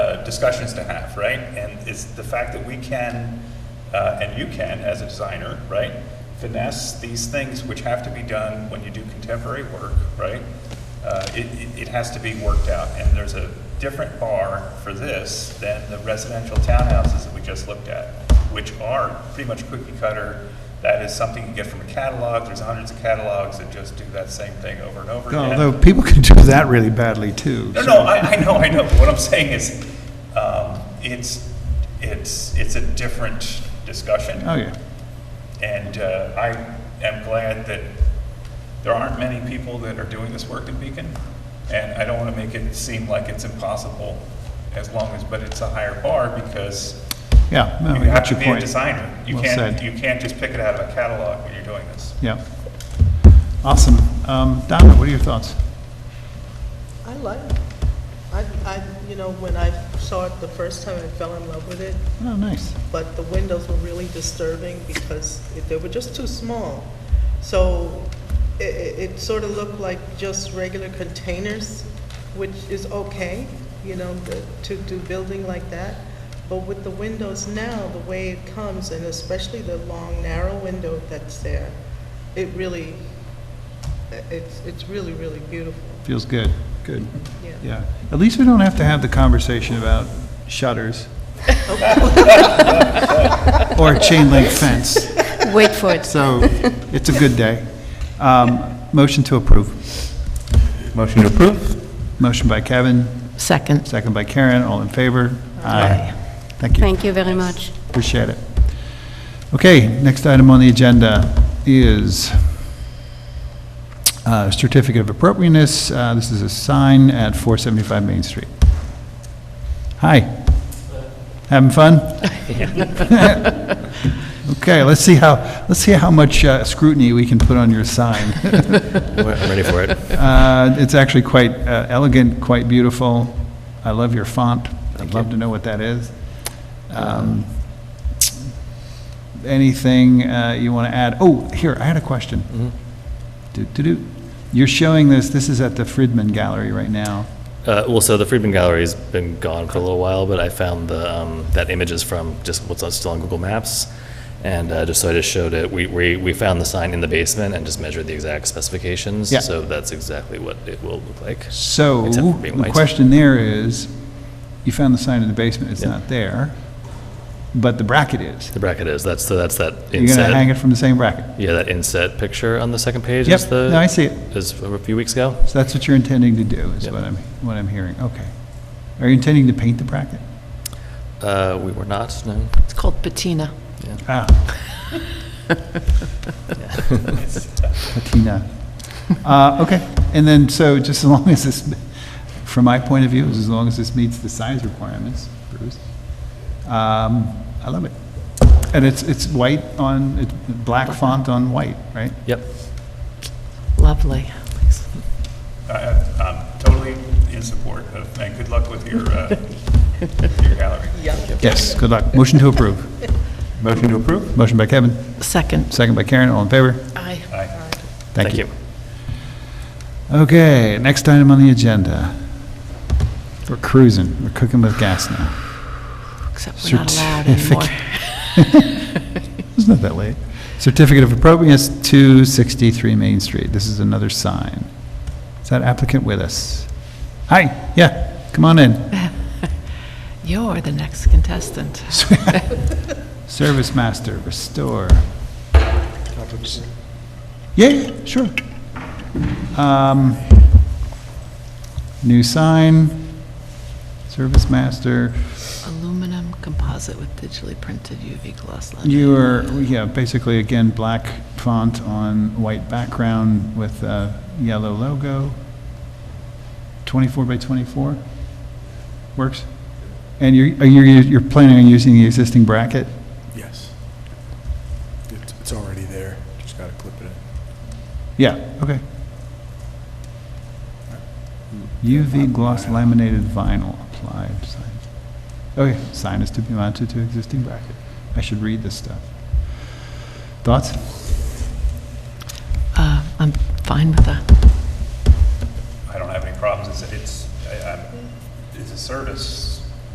uh, discussions to have, right? And it's the fact that we can, uh, and you can, as a designer, right, finesse these things which have to be done when you do contemporary work, right? Uh, It, it- it has to be worked out, and there's a different bar for this than the residential townhouses that we just looked at, which are pretty much cookie cutter. That is something you get from a catalog, there's hundreds of catalogs that just do that same thing over and over again. Although people can do that really badly too. No, so- no, I, I know, I know, but what I'm saying is, um, it's, it's, it's a different discussion. Oh, yeah. And, uh, I am glad that there aren't many people that are doing this work in Beacon, and I don't wanna make it seem like it's impossible, as long as, but it's a higher bar, because Yeah. no, you I have got to your be a point. designer. You Well can't, said. you can't just pick it out of a catalog when you're doing this. Yeah. Awesome. Um, Donna, what are your thoughts? I like it. I, I, you know, when I saw it the first time, I fell in love with it, Oh, nice. but the windows were really disturbing because it- they were just too small. So it, it sort of looked like just regular containers, which is okay, you know, the- to do building like that. But with the windows now, the way it comes, and especially the long, narrow window that's there, it really, it's, it's really, really beautiful, Feels good. Good. yeah. Yeah. At least we don't have to have the conversation about shutters. Or a chain link fence. Wait for it. So it's a good day. Um, Motion to approve. Motion to approve? Motion by Kevin, Second. second by Karen, all in favor? Aye. Thank you. Thank you very much. Appreciate it. Okay, next item on the agenda is uh, certificate of appropriateness. Uh, This is a sign at 475 Main Street. Hi. Having fun? Okay, let's see how, let's see how much uh, scrutiny we can put on your sign. I'm ready for it. Uh, It's actually quite uh, elegant, quite beautiful. I love your font. I'd love to know what that is. Um, Anything uh, you want to add? Oh, here, I had a Mm-hmm. question. Do do do. You're showing this, this is at the Friedman Gallery right now. Uh, well, so the Friedman Gallery's been gone for a little while, but I found the um, that image is from just what's on- still on Google Maps, and uh, just so I just showed it. We, we we found the sign in the basement and just measured the exact specifications. Yeah. So that's exactly what it will look like. So, Except for being the white. question there is, you found the sign in the basement, it's Yeah. not there, but the bracket is. The bracket is that's so that's that You're going to inset. hang it from the same bracket. yeah, that inset picture on the second page. Yep, Is the, no, I see it. Is from a few weeks ago. So that's what you're intending to do, is Yep. what I'm, what I'm hearing, okay. Are you intending to paint the bracket? Uh, we were not. No. It's called patina. Ah. Patina. Uh, okay, and then, so just as long as this, from my point of view, is as long as this meets the size requirements, Bruce, um, I love it. And it's, it's white on, it's black font on white, right? Yep. Lovely. I, I'm totally in support of, and good luck with your, uh, your gallery. Yes, good luck. Motion to approve. Motion to approve? Motion by Kevin, Second. second by Karen, all in favor? Aye. Aye. Thank you. Okay, next item on the agenda. We're cruising, we're cooking with gas now. Except we're not allowed anymore. It's not that late. Certificate of appropriateness, 263 Main Street. This is another sign. Is that applicant with us? Hi, yeah, come on in. You're the next contestant. Service master, restore. Yeah, yeah, sure. Um, New sign, service master. Aluminum composite with digitally printed UV gloss lettering. You are, yeah, basically, again, black font on white background with a yellow logo. 24 by 24? Works? And you're, are you- you're planning on using the existing bracket? Yes. It's, it's already there, just gotta clip it in. Yeah, okay. UV gloss laminated vinyl applied sign. Okay, sign is to be mounted to existing bracket. I should read this stuff. Thoughts? Uh, I'm fine with that. I don't have any problems, it's, it's, I- I'm, it's a service